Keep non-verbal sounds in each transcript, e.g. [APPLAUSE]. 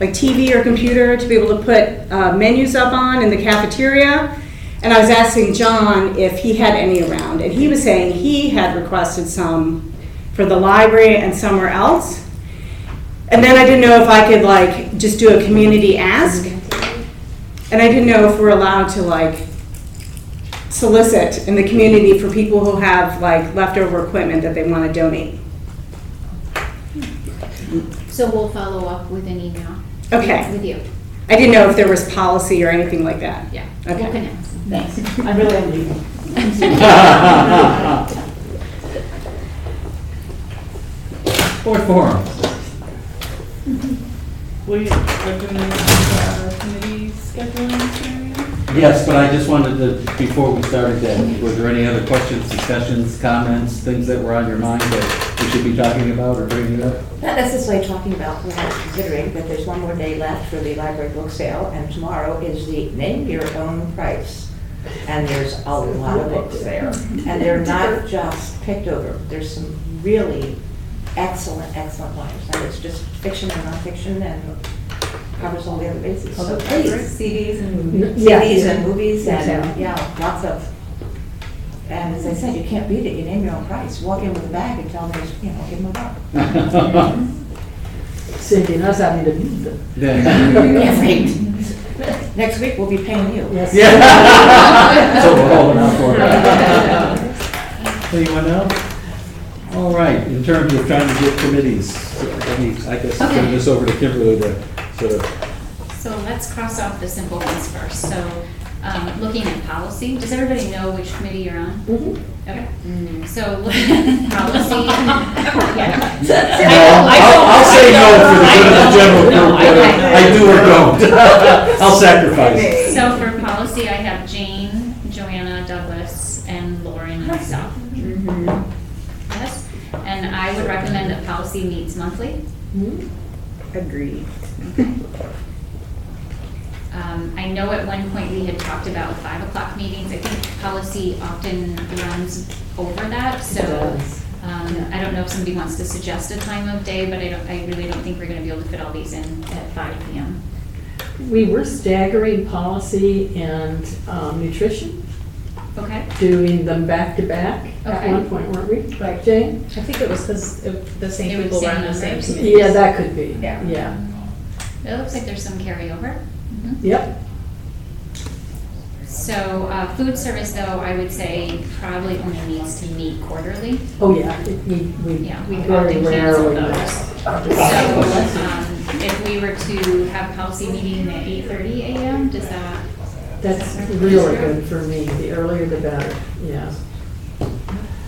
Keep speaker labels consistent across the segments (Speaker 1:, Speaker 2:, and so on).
Speaker 1: like TV or computer to be able to put uh, menus up on in the cafeteria. And I was asking John if he had any around, and he was saying he had requested some for the library and somewhere else. And then I didn't know if I could like just do a community ask. And I didn't know if we're allowed to like solicit in the community for people who have like leftover equipment that they want to donate.
Speaker 2: So we'll follow up with an email.
Speaker 1: Okay.
Speaker 2: With you,
Speaker 1: I didn't know if there was policy or anything like that.
Speaker 2: yeah. We'll
Speaker 1: Okay.
Speaker 2: connect.
Speaker 3: Thanks. I really am leaving.
Speaker 1: [LAUGHS]
Speaker 4: Board forum.
Speaker 5: We are doing our committee scheduling hearing.
Speaker 4: Yes, but I just wanted to, before we started that, were there any other questions, discussions, comments, things that were on your mind that we should be talking about or bringing up? [LAUGHS]
Speaker 3: Not necessarily talking about what I'm considering, but there's one more day left for the library book sale, and tomorrow is the name your own price. And there's a lot of books [LAUGHS] there, and they're not just picked over, there's some really excellent, excellent ones. And it's just fiction and nonfiction and covers all the other bases. So please,
Speaker 6: CDs and
Speaker 3: CDs and movies and,
Speaker 6: Exactly.
Speaker 3: yeah, lots of. And as I said, you can't beat it, you name your own price. Walk in with a bag and tell them, you know, give them a buck.
Speaker 6: Cindy, that's having to meet them.
Speaker 4: Then-
Speaker 3: Yeah, right. Next week, we'll be paying you.
Speaker 6: Yes.
Speaker 4: Yeah. [LAUGHS] So we're holding out for it. Anyone else? All right, in terms of trying to get committees, let me, I guess, turn
Speaker 2: Okay.
Speaker 4: this over to Kimberly to sort of,
Speaker 2: So let's cross off the simple ones first. So, um, looking at policy, does everybody know which committee you're on?
Speaker 1: Mm-hmm.
Speaker 2: Okay. So [LAUGHS] looking
Speaker 1: [LAUGHS]
Speaker 2: at policy. Yeah.
Speaker 4: no,
Speaker 3: [LAUGHS]
Speaker 4: I'll, I'll say no for the good of the general group, whether I do or don't. [LAUGHS] I'll sacrifice.
Speaker 2: So for policy, I have Jane, Joanna, Douglas, and Lauren myself.
Speaker 1: Mm-hmm.
Speaker 2: Yes, and I would recommend that policy meets monthly.
Speaker 1: Agreed.
Speaker 2: Um, I know at one point we had talked about five o'clock meetings. I think policy often runs over that, so. Um, I don't know if somebody wants to suggest a time of day, but I don't, I really don't think we're gonna be able to fit all these in at five P M.
Speaker 7: We were staggering policy and um, nutrition,
Speaker 2: Okay,
Speaker 7: doing them back to back at
Speaker 2: Okay.
Speaker 7: one point, weren't we? Right. Jane?
Speaker 6: I think it was because the
Speaker 2: It
Speaker 6: same
Speaker 2: was
Speaker 6: people were on the
Speaker 2: same numbers.
Speaker 6: same committee.
Speaker 7: Yeah, that could be.
Speaker 6: Yeah.
Speaker 7: Yeah,
Speaker 2: it looks like there's some carryover. Mhm.
Speaker 7: yep.
Speaker 2: So, uh, food service though, I would say probably only needs to meet quarterly.
Speaker 7: Oh, yeah, it- we, we
Speaker 2: Yeah, we
Speaker 7: very
Speaker 2: often
Speaker 7: rarely.
Speaker 2: cancel So, um, if we were to have policy meeting at eight thirty A M, does that?
Speaker 7: That's really good for me, the earlier the better, yeah.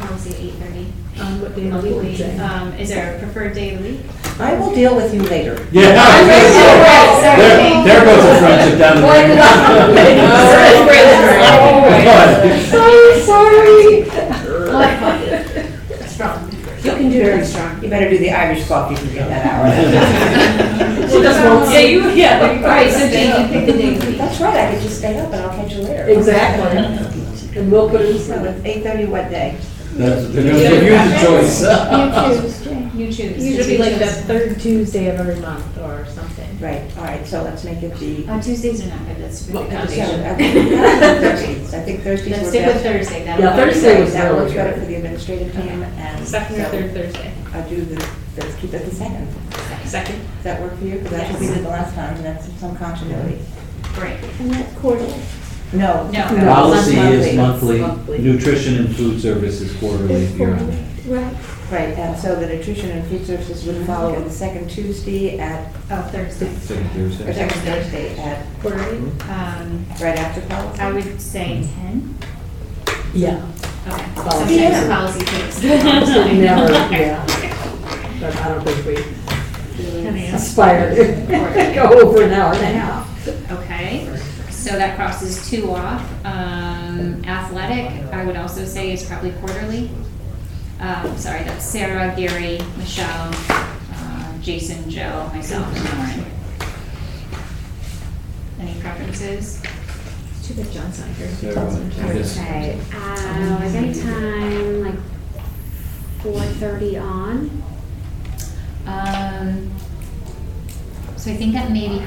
Speaker 2: Policy eight thirty.
Speaker 7: Um, what day of the week, uh, Jane?
Speaker 2: Um, is there a preferred day of the week?
Speaker 3: I will deal with you later.
Speaker 4: Yeah. I was gonna say, There, there goes a friendship down the drain. [LAUGHS]
Speaker 7: So sorry.
Speaker 2: Oh, Strong.
Speaker 3: You can do very strong. You better do the Irish clock, you can get that hour.
Speaker 7: She just won't
Speaker 6: Yeah, you, yeah.
Speaker 2: Right, so Jane, you pick the day of the week.
Speaker 3: That's right, I could just stay up and I'll catch you later.
Speaker 7: Exactly. And we'll put it
Speaker 3: So
Speaker 7: in.
Speaker 3: it's eight thirty what day?
Speaker 4: That's- They're gonna give you the choice.
Speaker 2: You choose.
Speaker 6: Usually like the third Tuesday of every month or something.
Speaker 3: Right, all right, so let's make it the.
Speaker 2: On Tuesdays are not good, that's for the
Speaker 6: Well,
Speaker 3: Yeah, [LAUGHS]
Speaker 2: foundation. [LAUGHS]
Speaker 3: I think Thursdays. I think Thursdays
Speaker 2: Let's
Speaker 3: were
Speaker 2: stick with
Speaker 3: best.
Speaker 2: Thursday,
Speaker 7: Yeah,
Speaker 2: that'll.
Speaker 7: Thursday. was
Speaker 3: That
Speaker 7: really
Speaker 3: works
Speaker 7: good.
Speaker 3: better for the administrative team and.
Speaker 6: Second or third Thursday.
Speaker 3: I do the, let's keep it the second.
Speaker 6: Second.
Speaker 3: Does that work for you? Because that should be
Speaker 2: Yes.
Speaker 3: the last time, and that's some continuity.
Speaker 2: Great.
Speaker 3: No.
Speaker 2: No.
Speaker 4: Policy is
Speaker 6: Monthly.
Speaker 4: monthly, nutrition and food service is quarterly, if you're on that.
Speaker 3: Right, and so the nutrition and food services would follow the second Tuesday at,
Speaker 2: Oh, Thursday.
Speaker 4: Second
Speaker 3: or
Speaker 4: Thursday.
Speaker 3: second Thursday at,
Speaker 2: Quarterly. Um,
Speaker 3: right after policy.
Speaker 2: I would say ten.
Speaker 7: Yeah.
Speaker 2: Okay.
Speaker 7: Yeah.
Speaker 2: Sometimes policy takes. [LAUGHS]
Speaker 7: Never, yeah. But I don't think we aspire to go over an hour and a half.
Speaker 2: Okay, so that crosses two off. Um, athletic, I would also say is probably quarterly. Um, sorry, that's Sarah, Gary, Michelle, uh, Jason, Joe, myself, and Lauren. Any preferences?
Speaker 6: Too bad John's not here.
Speaker 4: So, I guess-
Speaker 8: Okay, uh, like anytime, like four thirty on,
Speaker 2: Um, So I think that maybe